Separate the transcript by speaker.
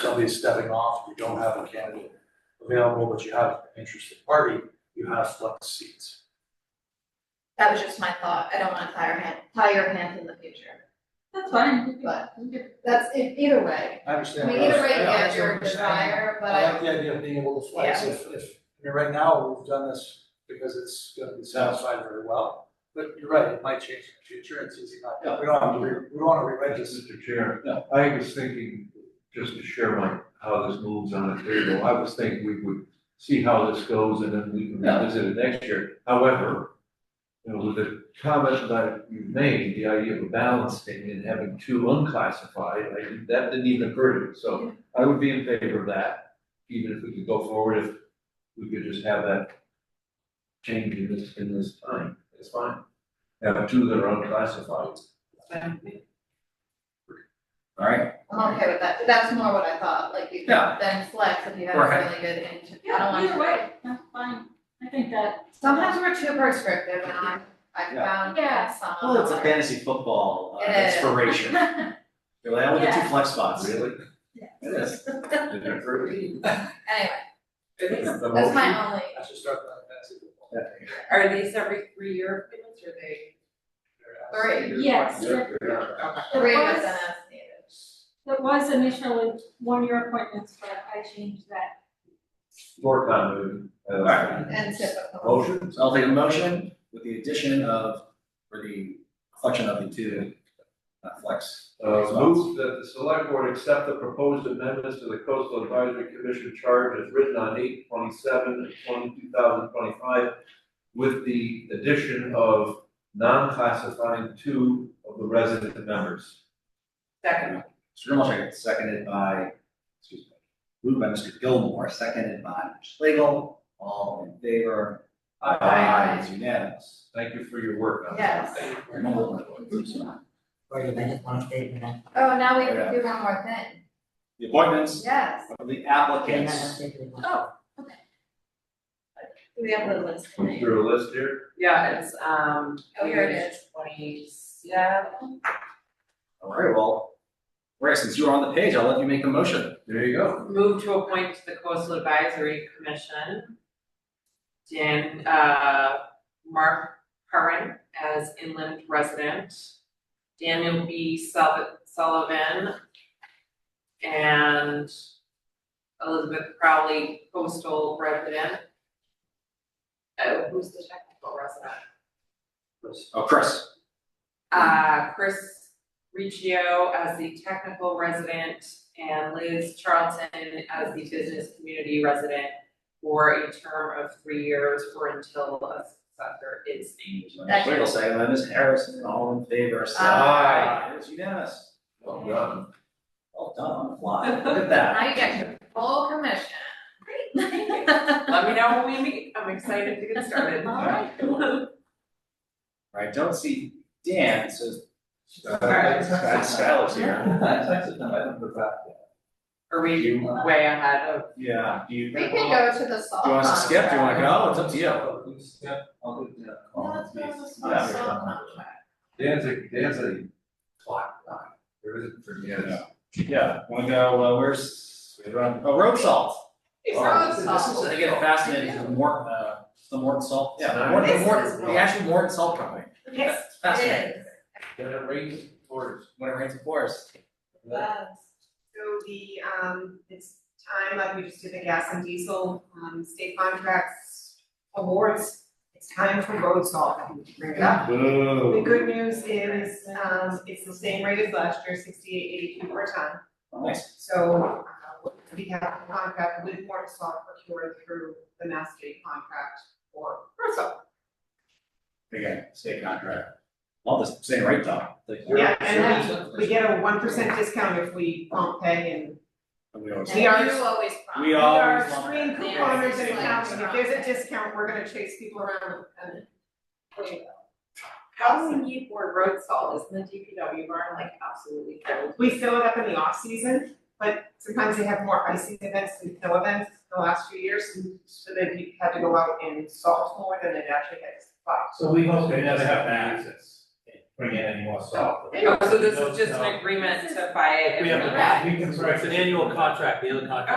Speaker 1: somebody is stepping off, you don't have a candidate available, but you have an interested party, you have flex seats.
Speaker 2: That was just my thought, I don't wanna tie your hand, tie your hands in the future,
Speaker 3: That's fine.
Speaker 2: but that's, e- either way.
Speaker 1: I
Speaker 2: I
Speaker 1: understand.
Speaker 2: mean,
Speaker 1: what
Speaker 2: either
Speaker 1: else-
Speaker 2: way,
Speaker 1: I
Speaker 2: yeah,
Speaker 1: understand
Speaker 2: you're a
Speaker 1: what you're saying.
Speaker 2: desire, but
Speaker 1: I
Speaker 2: I,
Speaker 1: like the idea of being able to flex
Speaker 2: Yeah.
Speaker 1: if, if, I mean, right now, we've done this because it's gonna be satisfied very well. But you're right, it might change in the future, it's easy not, we don't have to, re- we don't wanna rewrite this.
Speaker 4: Mr. Chair, I was thinking, just to share my, how this moves on the table, I was thinking we would see how this goes and then we can revisit it next year. However, you know, with the comment that you made, the idea of a balancing and having two unclassified, I, that didn't even occur to me. So I would be in favor of that, even if we could go forward, if we could just have that change in this, in this time, it's fine. Have two that are unclassified.
Speaker 5: All right,
Speaker 2: I'm okay with that, that's more what I thought, like you
Speaker 5: Yeah.
Speaker 2: could then flex if you have a
Speaker 5: Right.
Speaker 2: really good intent, I don't
Speaker 3: Yeah,
Speaker 2: want to.
Speaker 3: either way, that's fine. I think that,
Speaker 2: Sometimes we're too prescriptive and I, I
Speaker 5: Yeah.
Speaker 2: found
Speaker 3: Yeah.
Speaker 2: that some.
Speaker 5: Well, it's a
Speaker 2: are-
Speaker 5: fantasy football uh,
Speaker 2: It is.
Speaker 5: inspiration. You're like, I only get two flex spots.
Speaker 4: Really?
Speaker 5: It is.
Speaker 2: Anyway,
Speaker 4: That's
Speaker 2: that's my only,
Speaker 1: I should start that fantasy football.
Speaker 6: Are these every three year appointments or they?
Speaker 2: Three,
Speaker 3: yes, that
Speaker 2: three
Speaker 3: was-
Speaker 2: was an as needed.
Speaker 3: that was initially one-year appointments, but I changed that.
Speaker 4: Floor continuity. uh,
Speaker 5: Alright.
Speaker 2: And typical.
Speaker 4: Motion,
Speaker 5: So I'll take a motion with the addition of, or the collection of the two uh, flex.
Speaker 4: uh, move that the select board accept the proposed amendments to the coastal advisory commission charge as written on eight twenty-seven and 2025, with the addition of non-classifying two of the resident members.
Speaker 6: Second.
Speaker 5: Mr. Grimmelstein, seconded by, excuse me, moved by Mr. Gilmore, seconded by Mr. Slagle, all in favor? Aye, it's unanimous.
Speaker 4: Thank you for your work on that.
Speaker 2: Yes.
Speaker 5: The
Speaker 7: Or you might want to stay in that.
Speaker 2: Oh, now we can do one more thing,
Speaker 5: appointments
Speaker 2: yes,
Speaker 5: of the
Speaker 7: Okay, not
Speaker 5: applicants.
Speaker 7: necessarily.
Speaker 2: we have the list
Speaker 4: Is
Speaker 2: tonight.
Speaker 4: there a list here?
Speaker 6: Yeah, it's, um.
Speaker 2: Oh, here it is.
Speaker 6: Twenty-seven.
Speaker 5: All right, well, Rick, since you were on the page, I'll let you make a motion.
Speaker 4: There you go.
Speaker 6: Move to appoint to the coastal advisory commission. Dan, uh, Mark Curran as inland resident. Daniel B. Sul- Sullivan. And Elizabeth Crowley, coastal resident. Uh, who's the technical resident?
Speaker 5: Oh, Chris,
Speaker 6: Uh, Chris Riccio as the technical resident and Liz Charlton as the business community resident for a term of three years or until a successor is named.
Speaker 2: Second.
Speaker 5: Slagle, seconded by Ms. Harrison, all in favor, say
Speaker 2: Aye.
Speaker 5: It's unanimous.
Speaker 4: Well done.
Speaker 5: Well done on the fly, look at that.
Speaker 2: Now you get your full commission.
Speaker 6: Let me know when we meet, I'm excited to get started.
Speaker 2: All right.
Speaker 5: Right, don't see Dan, so Skylar,
Speaker 4: That's-
Speaker 5: Skylar's here.
Speaker 4: that's- I don't put that.
Speaker 6: Are we way ahead of,
Speaker 5: Yeah, do you?
Speaker 2: We can go to the salt.
Speaker 5: Do you want us to skip, do you wanna
Speaker 4: Oh,
Speaker 5: go, it's up to you.
Speaker 4: Yeah, we step on it, yeah.
Speaker 2: No, let's go to the
Speaker 5: Yeah.
Speaker 2: salt contract.
Speaker 4: Dan's a, Dan's a clock guy. There isn't for Dan's.
Speaker 5: Yeah, wanna go, uh, where's, we run, oh, road salt.
Speaker 2: It's
Speaker 5: Oh,
Speaker 2: road
Speaker 5: this is-
Speaker 2: salt.
Speaker 5: This is, I get fascinated, with the Morton, uh, the Morton salt, yeah, the
Speaker 4: Nice.
Speaker 5: Morton, the
Speaker 2: This
Speaker 5: Morton,
Speaker 2: is
Speaker 5: the actual Morton Salt Company,
Speaker 2: Yes,
Speaker 5: fascinating.
Speaker 2: it is.
Speaker 4: When it rains, it pours.
Speaker 5: When it rains, it pours.
Speaker 6: So the, um, it's time, like we just did the gas and diesel, um, state contracts awards. It's time for road salt, bring it up. The good news is, um, it's the same rate as last year, sixty-eight eighty-two per ton.
Speaker 5: Nice,
Speaker 6: So, uh, we have a contract with Morton Salt procured through the Mass State contract for road salt.
Speaker 5: again, state contract, all the same rate though.
Speaker 6: Yeah, and We get a one percent discount if we don't pay and
Speaker 5: And we always-
Speaker 2: And
Speaker 6: We are-
Speaker 2: you always promise.
Speaker 5: We
Speaker 6: we are
Speaker 5: always love
Speaker 6: extreme
Speaker 5: that.
Speaker 6: couponers in accounting. If there's
Speaker 2: Yes.
Speaker 6: a discount, we're gonna chase people around and.
Speaker 8: housing need for road salt, isn't the DPW barn like absolutely filled?
Speaker 6: We fill it up in the off-season, but sometimes they have more icing events than snow events the last few years, so they've had to go out and salt more than they've actually had to supply.
Speaker 4: So we hope
Speaker 9: they never have
Speaker 4: access.
Speaker 1: bring in any more salt.
Speaker 6: No, so this is just
Speaker 1: No, no.
Speaker 6: an agreement to buy it.
Speaker 1: We
Speaker 6: and
Speaker 1: have,
Speaker 6: we-
Speaker 1: we can, it's an annual contract, the other contract